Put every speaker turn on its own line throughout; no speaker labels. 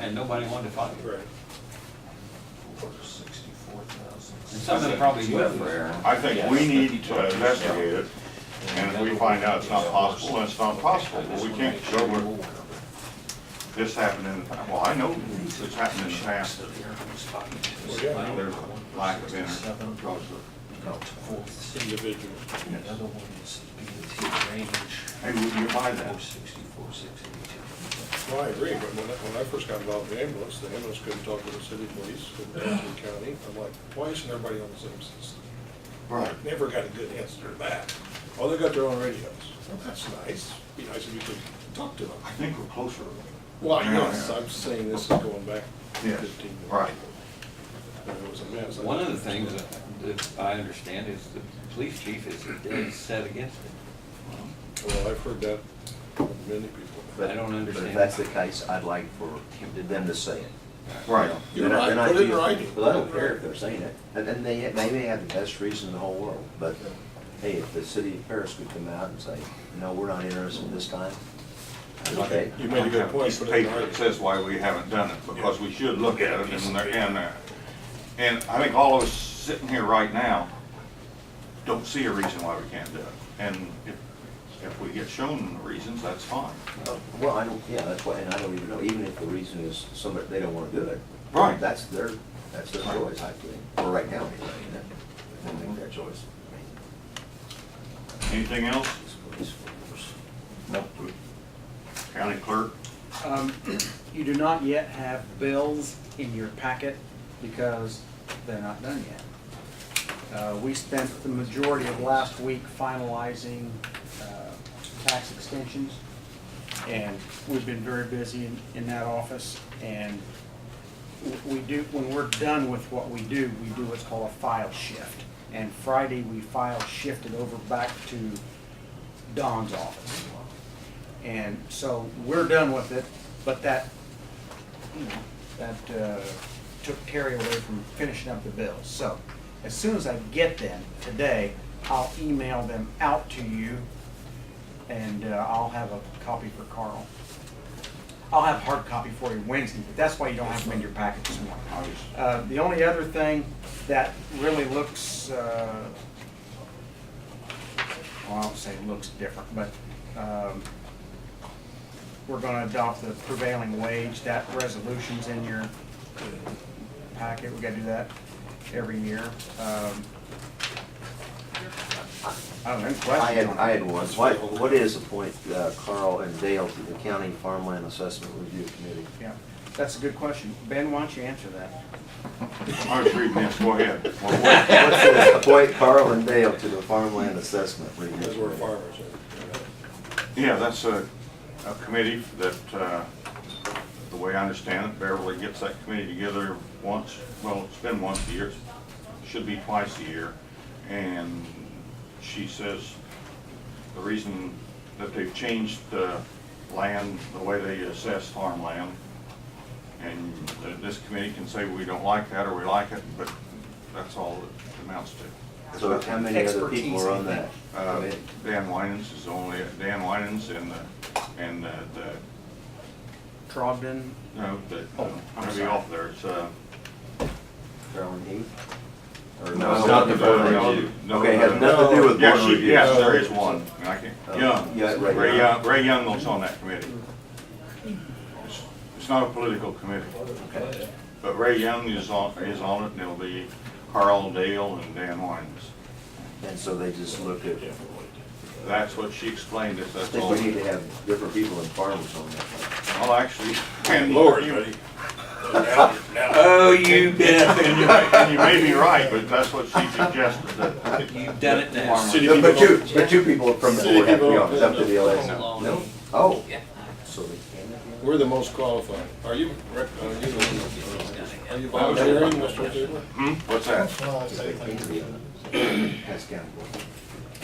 and nobody wanted to fight.
Right.
Sixty-four
And
thousand.
some of them probably went for error.
I think we need to investigate it, and if we find out it's not possible, then it's not possible, but we can't go with this happened in, the past. well, I know this happened in the past,
Well, yeah, I
there's a lack of interest because of,
Individuals.
Another one is BT range,
hey, would you buy
four
that?
sixty-four, six eighty-two.
Well, I agree, but when I, when I first got involved in the ambulance, the ambulance couldn't talk to the city police, couldn't talk to the county. I'm like, why isn't everybody on the same system?
Right.
Never got a good answer to that. Oh, they got their own radios. Well, that's nice. Be nice if you could talk to them.
I think we're closer.
Well, yes, I'm saying this is going back
Yes,
fifteen years.
right.
And it was a mess.
One of the things that- that I understand is the police chief is dead set against it.
Well, I've heard that from many people.
But-
I don't
But if
understand.
that's the case, I'd like for him- them to say it.
Right.
You're
Then I-
right,
then I
put it in
feel-
writing.
Well, I don't care if they're saying it, and, and they, they may have the best reason in the whole world, but, hey, if the city of Paris would come out and say, no, we're not interested this time, okay,
You made a good point.
Piece of paper that says why we haven't done it, because we should look at it and, there- and, uh, and I think all of us sitting here right now don't see a reason why we can't do it. And if, if we get shown the reasons, that's fine.
Uh, well, I don't, yeah, that's why, and I don't even know, even if the reason is somebody, they don't wanna do it.
Right.
That's their, that's their
Right.
choice, I think, for right now, anyway, you know, they'll make their choice. I mean,
Anything else?
it's police force.
No. County clerk?
Um, You do not yet have bills in your packet because they're not done yet. Uh, We spent the majority of last week finalizing uh, tax extensions, and we've been very busy in- in that office. And w- we do, when we're done with what we do, we do what's called a file shift. And Friday, we file shifted over back to Don's office. And so we're done with it, but that, you know, that uh, took Terry away from finishing up the bills. So as soon as I get them today, I'll email them out to you and uh, I'll have a copy for Carl. I'll have hard copy for you Wednesday, but that's why you don't have them in your packet this morning. Uh, The only other thing that really looks, uh, well, I don't say looks different, but um, we're gonna adopt the prevailing wage, that resolution's in your packet, we gotta do that every year. Um, I don't know, any questions?
I had,
on it?
I had one. What, what is the point, uh, Carl and Dale, to the County Farmland Assessment Review Committee?
Yeah, that's a good question. Ben, why don't you answer that?
I was reading this, go ahead. Well, wait.
What's the appoint Carl and Dale to the Farmland Assessment Review
Because we're
Committee?
farmers. and,
Yeah, that's a, a committee that, uh, the way I understand it, Beverly gets that committee together once, well, it's been once a year, should be twice a year. And she says the reason that they've changed the land, the way they assess farmland, and that this committee can say we don't like that or we like it, but that's all it amounts to.
So how many other people are on that?
Uh,
committee?
Dan Winans is only, Dan Winans and the, and the, the-
Trogdon,
no, the,
Oh,
I'm gonna be
sorry.
off there, it's, uh.
Carolyn Heath? Or
no,
no?
no, no, no,
Okay,
no,
has
no.
nothing to do with
Yeah,
board
she-
review.
Yes, there is one, and I can't,
Oh,
Young,
yeah, Ray
Ray Young,
Young.
Ray Young was on that committee. It's- It's not a political committee,
Okay.
but Ray Young is on, is on it, and it'll be Carl Dale and Dan Winans.
And so they just look at,
That's what she explained, is
I
that's
think
all.
we need to have different people and farmers on that.
Well, actually, and Lord,
Lord,
you,
buddy. Now- now-
Oh, you bet.
And you may- and you may be right, but that's what she suggested, that
You've done it now.
City
But- But
people-
two, but two people from the
City
board have to be
people-
on, it's up to the LSA.
No.
No? Oh. So they can.
We're the most qualified. Are you, Rick, are you the one? Are you volunteering, Mr. Taylor?
Hmm, what's that?
They can be on it. That's county board.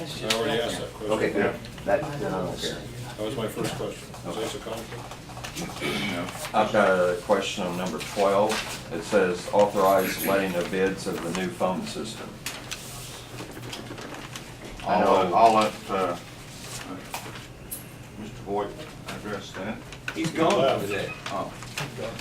I already asked that question.
Okay, good. That, then I don't care.
That was my first question. Is this a conflict?
I've got a question on number 12. It says authorize letting of bids of the new phone system.
I'll, let- I'll let, uh, uh, Mr. Boyd address that.
He's gone today.
Oh.